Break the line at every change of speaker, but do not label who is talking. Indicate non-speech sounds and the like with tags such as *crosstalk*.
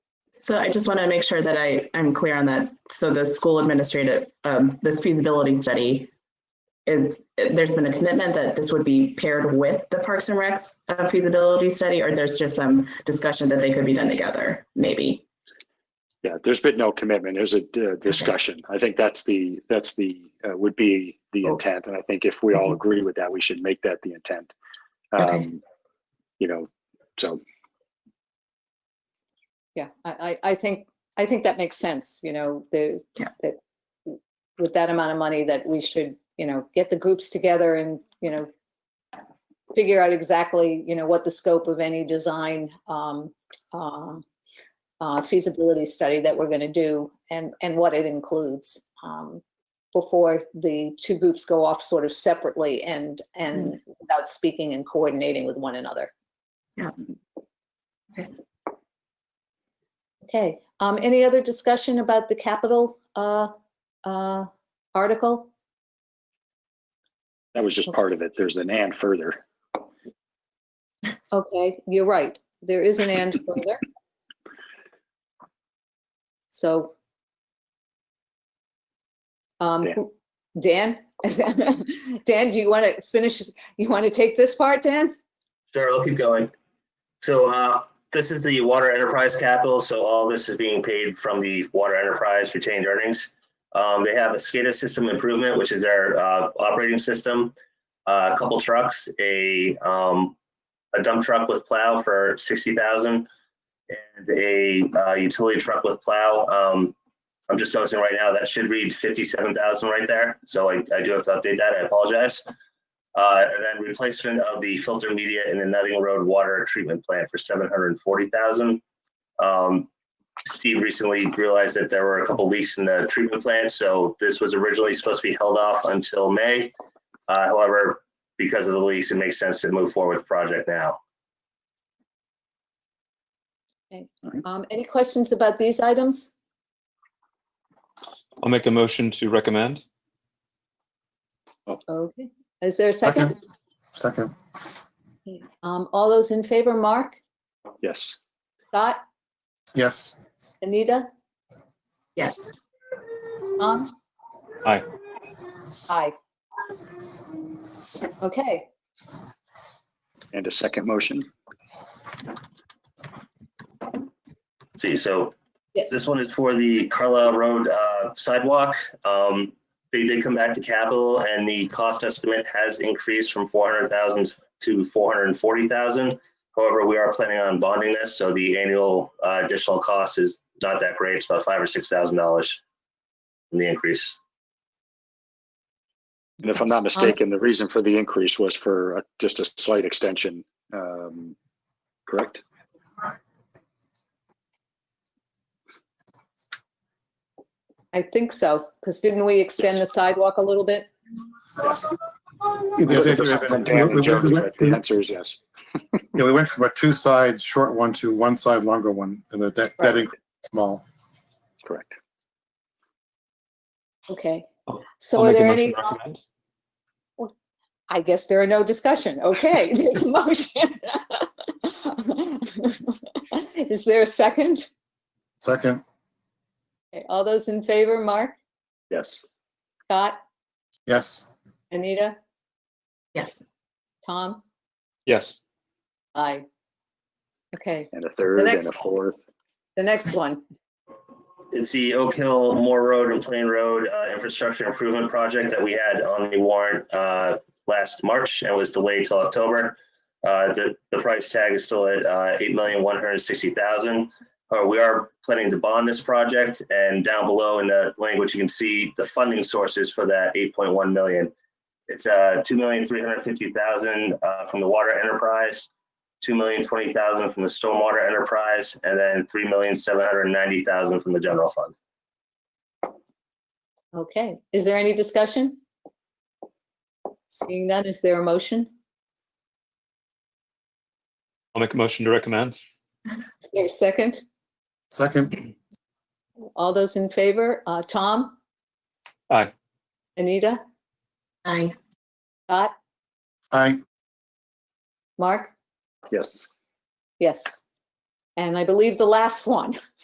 So I just want to make sure that I am clear on that. So the school administrative, um, this feasibility study is, there's been a commitment that this would be paired with the Parks and Recs uh, feasibility study, or there's just some discussion that they could be done together, maybe?
Yeah, there's been no commitment. There's a uh, discussion. I think that's the, that's the, uh, would be the
Oh.
intent. And I think if we all agree with that, we should make that the intent.
Okay.
Um, You know, so,
Yeah, I, I, I think, I think that makes sense, you know, the,
Yeah.
that with that amount of money that we should, you know, get the groups together and, you know, figure out exactly, you know, what the scope of any design, um, um, uh, feasibility study that we're gonna do and, and what it includes, um, before the two groups go off sort of separately and, and without speaking and coordinating with one another. Okay, um, any other discussion about the capital, uh, uh, article?
that was just part of it. There's an and further.
Okay, you're right, there is an and further. So. Um,
Dan.
who- Dan, Dan, *laughs* do you want to finish, you want to take this part, Dan?
Sure, I'll keep going. So uh, this is the water enterprise capital, so all this is being paid from the water enterprise retained earnings. Um, They have a SCADA system improvement, which is their uh, operating system, uh, a couple trucks, a um, a dump truck with plow for 60,000 and a uh, utility truck with plow. Um, I'm just noticing right now, that should read 57,000 right there, so I I do have to update that, I apologize. Uh, and then replacement of the filter media in the Nutting Road Water Treatment Plant for seven hundred and forty thousand. Um, Steve recently realized that there were a couple leaks in the treatment plant, so this was originally supposed to be held off until May. Uh, however, because of the leaks, it makes sense to move forward with the project now.
Um, any questions about these items?
I'll make a motion to recommend.
Okay, is there a second?
Second,
Um, all those in favor, Mark,
Yes.
Scott,
yes,
Anita,
Yes,
Tom?
Aye.
Um, Aye. Okay,
And a second motion.
See, so
yes,
This one is for the Carlisle Road uh, sidewalk. Um, They did come back to capital and the cost estimate has increased from 400,000 to 440,000. However, we are planning on bonding this, so the annual uh, additional cost is not that great. It's about five or $6,000 in the increase.
And if I'm
Um,
not mistaken, the reason for the increase was for a- just a slight extension. um, Correct?
I think so, because didn't we extend the sidewalk a little bit?
Yeah, we did.
From Dan and Jody, but The answer is yes.
yeah, we went from a two side short one to one side longer one, and the that, that
Right.
increase is small.
Correct.
Okay,
I'll-
so
Oh, I'll
are
make a
there
motion
any,
to recommend.
I guess there are no discussion, okay, *laughs* there's a motion. *laughs* Is there a second?
Second,
Okay, All those in favor, Mark,
Yes.
Scott,
yes,
Anita,
yes,
Tom?
Yes,
Aye. Okay,
And a third
next
and a fourth.
the next one,
It's the Oak Hill, Moore Road and Plain Road uh, Infrastructure Improvement Project that we had on the warrant uh, last March and was delayed till October. Uh, The, the price tag is still at uh, $8,160,000. Uh, We are planning to bond this project and down below in the language, you can see the funding sources for that 8.1 million. It's uh, 2,350,000 uh, from the water enterprise, two million twenty thousand from the stormwater enterprise, and then three million seven hundred ninety thousand from the general fund.
okay, is there any discussion? Seeing none, is there a motion?
I'll make a motion to recommend.
Is there a second?
second,
All those in favor, uh, Tom?
Aye.
Anita,
I,
Scott,
aye,
Mark?
Yes.
Yes. And I believe the last one,